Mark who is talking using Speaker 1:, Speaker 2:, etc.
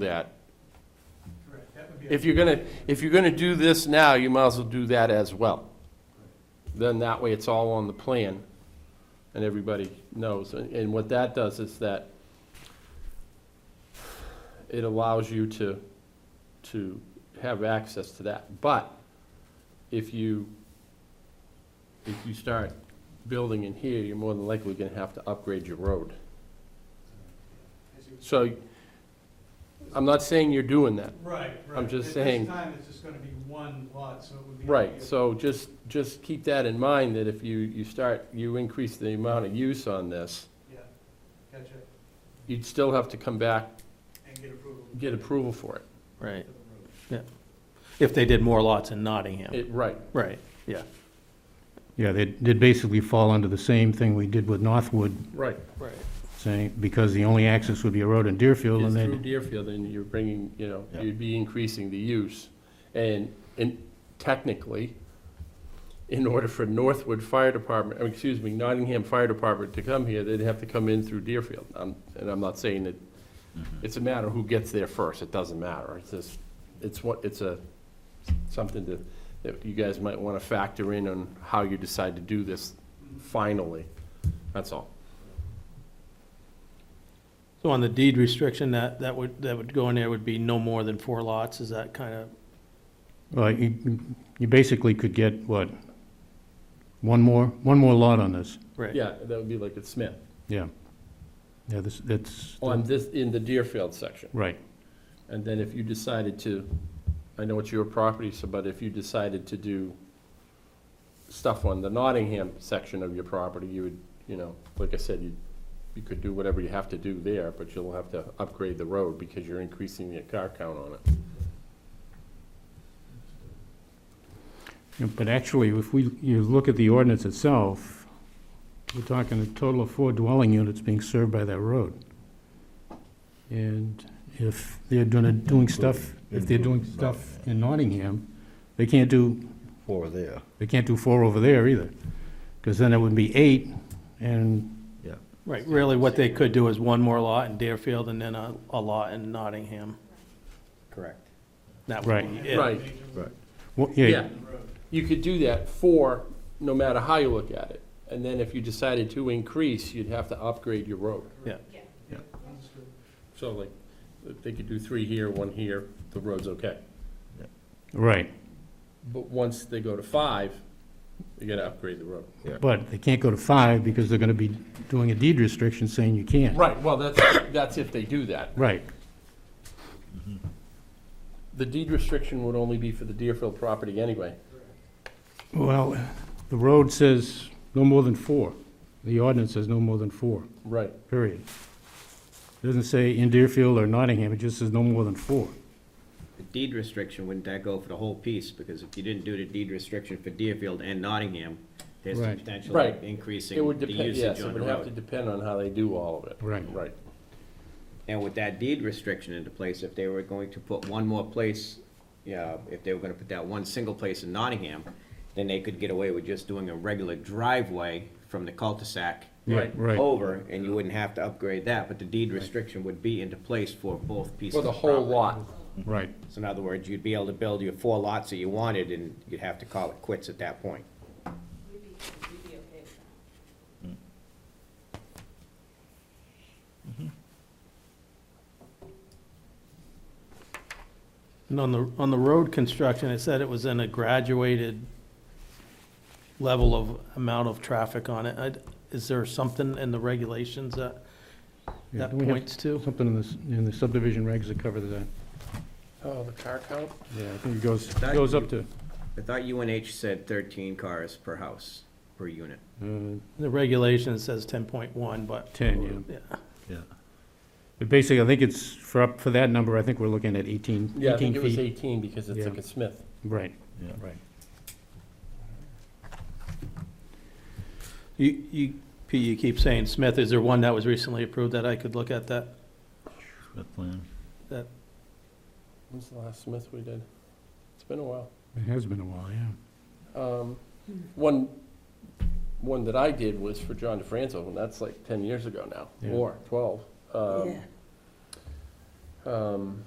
Speaker 1: that.
Speaker 2: Correct, that would be,
Speaker 1: If you're gonna, if you're gonna do this now, you might as well do that as well. Then that way it's all on the plan and everybody knows. And and what that does is that it allows you to, to have access to that. But if you, if you start building in here, you're more than likely gonna have to upgrade your road.
Speaker 2: as you-
Speaker 1: So I'm not saying you're doing that.
Speaker 2: right, right.
Speaker 1: just
Speaker 2: At
Speaker 1: saying-
Speaker 2: this time, it's just gonna be one lot, so it would be.
Speaker 1: Right, so just, just keep that in mind, that if you, you start, you increase the amount of use on this,
Speaker 2: Yeah, gotcha,
Speaker 1: you'd still have to come back,
Speaker 2: and get approval.
Speaker 1: get approval for it.
Speaker 2: for
Speaker 3: Right,
Speaker 2: the road.
Speaker 3: if they did more lots in Nottingham,
Speaker 1: It, right,
Speaker 3: right, yeah,
Speaker 4: Yeah, they did basically fall under the same thing we did with Northwood,
Speaker 1: right.
Speaker 3: right.
Speaker 4: saying, because the only access would be a road in Deerfield,
Speaker 1: It's
Speaker 4: and
Speaker 1: through
Speaker 4: then,
Speaker 1: Deerfield, and you're bringing, you know,
Speaker 4: Yeah.
Speaker 1: you'd be increasing the use. And, and technically, in order for Northwood Fire Department, oh, excuse me, Nottingham Fire Department to come here, they'd have to come in through Deerfield. Um, And I'm not saying that, it's a matter who gets there first, it doesn't matter. It's just, it's what, it's a, something that, that you guys might want to factor in on how you decide to do this finally. That's all.
Speaker 3: So on the deed restriction, that, that would, that would go in there would be no more than four lots, is that kind of,
Speaker 4: well, you, you basically could get, what? One more, one more lot on this,
Speaker 3: right?
Speaker 1: Yeah, that would be like at Smith,
Speaker 4: yeah. Yeah, this, that's,
Speaker 1: on this, in Oh, the Deerfield section.
Speaker 4: right,
Speaker 1: And then if you decided to, I know it's your property, so, but if you decided to do stuff on the Nottingham section of your property, you would, you know, like I said, you, you could do whatever you have to do there, but you'll have to upgrade the road because you're increasing the car count on it.
Speaker 4: Yeah, but actually, if we, you look at the ordinance itself, we're talking a total of four dwelling units being served by that road. And if they're gonna, doing stuff, if they're doing stuff in Nottingham, they can't do
Speaker 5: Four there.
Speaker 4: They can't do four over there either, because then it would be eight, and,
Speaker 3: Right, really what they could do is one more lot in Deerfield and then a, a lot in Nottingham.
Speaker 5: Correct.
Speaker 3: That would
Speaker 4: Right.
Speaker 3: be it.
Speaker 1: Right.
Speaker 2: Major
Speaker 5: Right.
Speaker 4: well, yeah,
Speaker 2: road.
Speaker 1: You could do that for, no matter how you look at it. And then if you decided to increase, you'd have to upgrade your road.
Speaker 2: Yeah, understood.
Speaker 1: So like, they could do three here, one here, the road's okay.
Speaker 4: right.
Speaker 1: But once they go to five, you gotta upgrade the road.
Speaker 4: But they can't go to five, because they're gonna be doing a deed restriction saying you can't.
Speaker 1: Right, well, that's, that's if they do that.
Speaker 4: Right,
Speaker 1: The deed restriction would only be for the Deerfield property anyway.
Speaker 4: well, the road says no more than four, the ordinance says no more than four,
Speaker 1: Right.
Speaker 4: period. Doesn't say in Deerfield or Nottingham, it just says no more than four.
Speaker 6: The deed restriction, wouldn't that go for the whole piece? Because if you didn't do the deed restriction for Deerfield and Nottingham, there's the
Speaker 4: Right.
Speaker 6: potential
Speaker 1: Right.
Speaker 6: of increasing
Speaker 1: It would
Speaker 6: the
Speaker 1: depend, yes,
Speaker 6: usage
Speaker 1: it
Speaker 6: on the
Speaker 1: would have to
Speaker 6: road.
Speaker 1: depend on how they do all of it.
Speaker 4: Right.
Speaker 1: Right.
Speaker 6: And with that deed restriction into place, if they were going to put one more place, yeah, if they were gonna put that one single place in Nottingham, then they could get away with just doing a regular driveway from the cul-de-sac
Speaker 1: Right.
Speaker 4: Right,
Speaker 6: over, and you wouldn't have to upgrade that, but the deed restriction would be into place for both pieces
Speaker 1: For
Speaker 6: of
Speaker 1: the whole
Speaker 6: property.
Speaker 1: lot.
Speaker 4: right,
Speaker 6: So in other words, you'd be able to build your four lots that you wanted, and you'd have to call it quits at that point.
Speaker 3: And on the, on the road construction, it said it was in a graduated level of amount of traffic on it. I'd- Is there something in the regulations that,
Speaker 4: Yeah,
Speaker 3: that
Speaker 4: do we have-
Speaker 3: points to?
Speaker 4: something in this, in the subdivision regs that cover that,
Speaker 1: Oh, the car count?
Speaker 4: yeah, I think it goes, goes up to,
Speaker 6: I thought UNH said thirteen cars per house, per unit.
Speaker 4: uh,
Speaker 3: The regulation says ten point one, but.
Speaker 4: 10, yeah.
Speaker 3: Yeah.
Speaker 5: Yeah.
Speaker 4: But Basically, I think it's, for, up for that number, I think we're looking at 18,
Speaker 1: Yeah, I
Speaker 4: 18
Speaker 1: think it was
Speaker 4: feet.
Speaker 1: eighteen because it's
Speaker 4: Yeah.
Speaker 1: like a Smith.
Speaker 4: Right,
Speaker 5: Yeah.
Speaker 4: right.
Speaker 3: You, you, Pete, you keep saying Smith, is there one that was recently approved that I could look at that?
Speaker 5: With plan.
Speaker 1: When's the last Smith we did? It's been a while.
Speaker 4: It has been a while, yeah.
Speaker 1: Um, One, one that I did was for John DeFranco, and that's like ten years ago now,
Speaker 4: Yeah.
Speaker 1: more, twelve. Um, Um,